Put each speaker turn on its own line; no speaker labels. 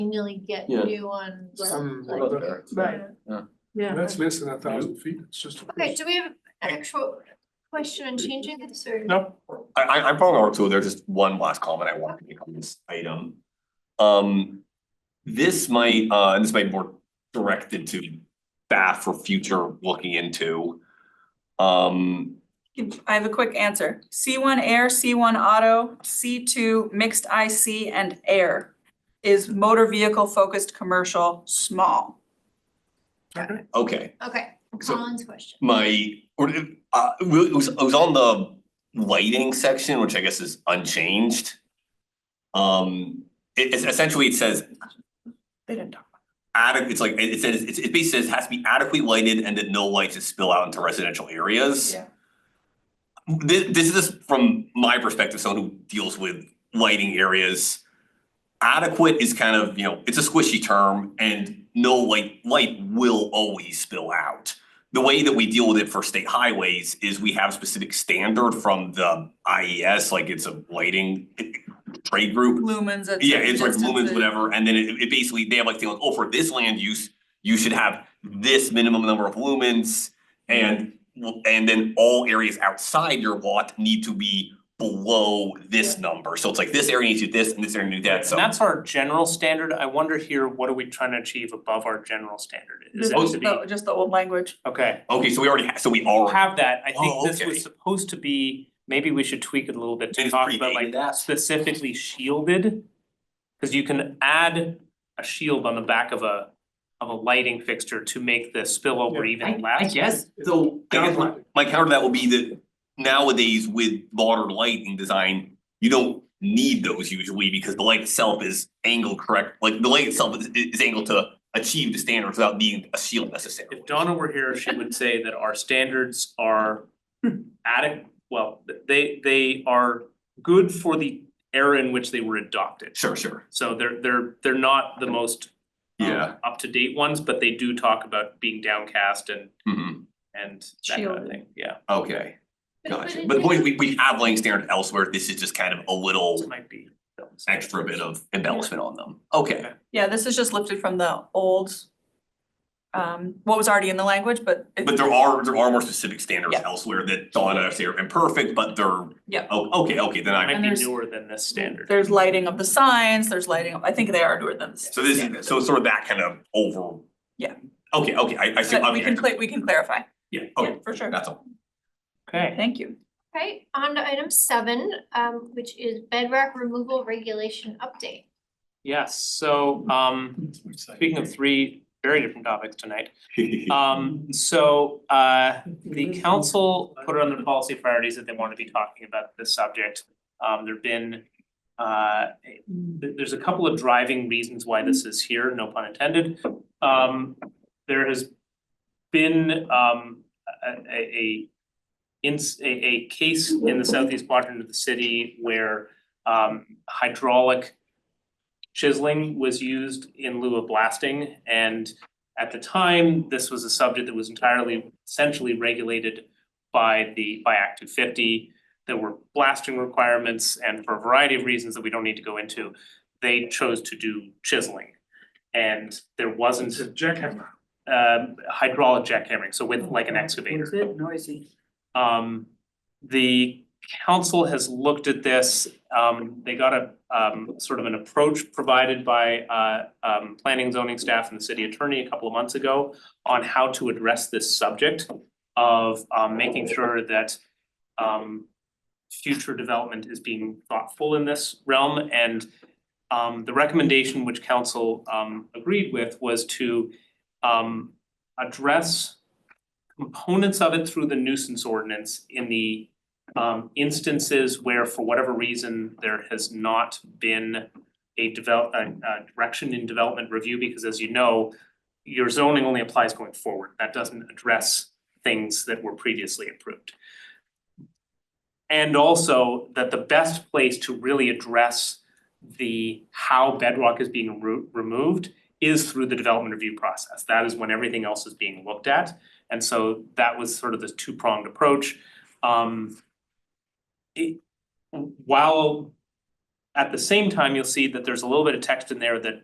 annually get
Yeah.
new ones.
Some
like-
other-
Right.
Yeah.
Yeah.
That's less than a thousand feet, it's just.
Okay, do we have an actual question on changing this or?
No,
I I I'm probably wrong too, there's just one last comment I want to make on this item. Um, this might, uh, and this might be more directed to staff for future looking into. Um,
I have a quick answer. C one air, C one auto, C two mixed IC and air is motor vehicle focused commercial small.
okay,
okay,
Okay,
So-
Colin's question.
my, or, uh, it was, it was on the lighting section, which I guess is unchanged. Um, it, it's essentially, it says
They didn't talk.
adequate, it's like, it it says, it, it basically says has to be adequately lighted and that no lights should spill out into residential areas.
Yeah.
This, this is from my perspective, someone who deals with lighting areas. Adequate is kind of, you know, it's a squishy term and no light, light will always spill out. The way that we deal with it for state highways is we have specific standard from the IES, like it's a lighting trade group.
Lumens at
Yeah, it's like
certain
lumens,
distances.
whatever, and then it it basically, they have like, thing like, oh, for this land use, you should have this minimum number of lumens. And well, and then all areas outside your lot need to be below this number, so it's like this area needs to do this and this area needs to do that, so.
And that's our general standard, I wonder here, what are we trying to achieve above our general standard? Is
Just
it to
the,
be,
just the old language.
okay,
Okay, so we already have, so we already.
have that, I
Oh,
think this
okay.
was supposed to be, maybe we should tweak it a little
Maybe
bit to
it's
talk about
predated
like
that.
specifically shielded. Cause you can add a shield on the back of a, of a lighting fixture to make the spillover
I
even
I
less.
guess, so I guess my my counter to that would be that nowadays with modern lighting design, you don't need those usually because the light itself is angled correct, like the light itself is is angled to achieve the standards without needing a shield necessarily.
If Donna were here, she would say that our standards are adequate, well, they they are good for the era in which they were adopted.
Sure, sure,
So they're they're they're not the most
yeah,
up to date ones, but they do talk about being downcast and
mhm,
and that kind of
Shielded.
thing, yeah.
okay, gotcha,
it
but the point is
is-
we we have lighting standards elsewhere, this is just kind of a
So it
little
might be.
extra bit of embellishment on them, okay.
Yeah, this is just lifted from the old um, what was already in the language, but it-
But there are, there are more specific standards
Yeah.
elsewhere that Donna say are imperfect, but they're.
Yeah.
Oh, okay, okay, then I,
Might
And
be
there's-
newer than this standard.
there's lighting of the signs, there's lighting, of- I think they are newer than this.
so this is, so it's sort of that kind of over.
Yeah.
Okay, okay, I I see,
But we
okay,
can cla- we can clarify.
yeah,
Yeah,
okay,
for sure.
that's all.
Okay.
Thank you.
Okay, on to item seven, um, which is bedrock removal regulation update.
Yes, so um speaking of three very different topics tonight, Um so uh the council put on their policy priorities that they want to be talking about this subject. Um there've been uh th- there's a couple of driving reasons why this is here, no pun intended. Um there has been um a a a ins- a a case in the southeast quadrant of the city where um hydraulic chiseling was used in lieu of blasting and at the time, this was a subject that was entirely essentially regulated by the by Act two fifty. There were blasting requirements and for a variety of reasons that we don't need to go into, they chose to do chiseling. And there wasn't
it's a jackhammer. Oh,
um hydraulic jackhammering, so with like an excavator.
It's a bit noisy.
Um, the council has looked at this, um, they got a, um, sort of an approach provided by, uh, um, planning and zoning staff and the city attorney a couple of months ago on how to address this subject of, um, making sure that, um, future development is being thoughtful in this realm and, um, the recommendation which council, um, agreed with was to, um, address components of it through the nuisance ordinance in the um instances where for whatever reason there has not been a develop, a a direction in development review, because as you know, your zoning only applies going forward, that doesn't address things that were previously approved. And also that the best place to really address the how bedrock is being remo- removed is through the development review process, that is when everything else is being looked at. And so that was sort of this two-pronged approach. Um, it- while at the same time, you'll see that there's a little bit of text in there that